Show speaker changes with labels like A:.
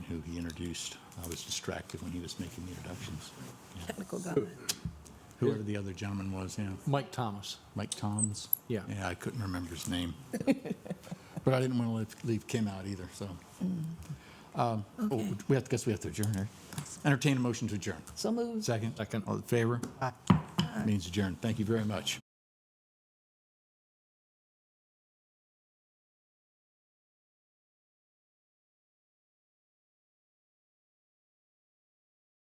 A: who he introduced. I was distracted when he was making the introductions. Yeah.
B: Technical government.
A: Whoever the other gentleman was, yeah.
C: Mike Thomas.
A: Mike Toms?
C: Yeah.
A: Yeah, I couldn't remember his name. But I didn't want to leave, leave Kim out either, so.
C: Mm.
A: Um, oh, We have, to guess we have to adjourn, right? Entertain a motion to adjourn.
B: So moved.
A: Second?
C: Second.
A: All in favor? Means adjourned. Thank you very much.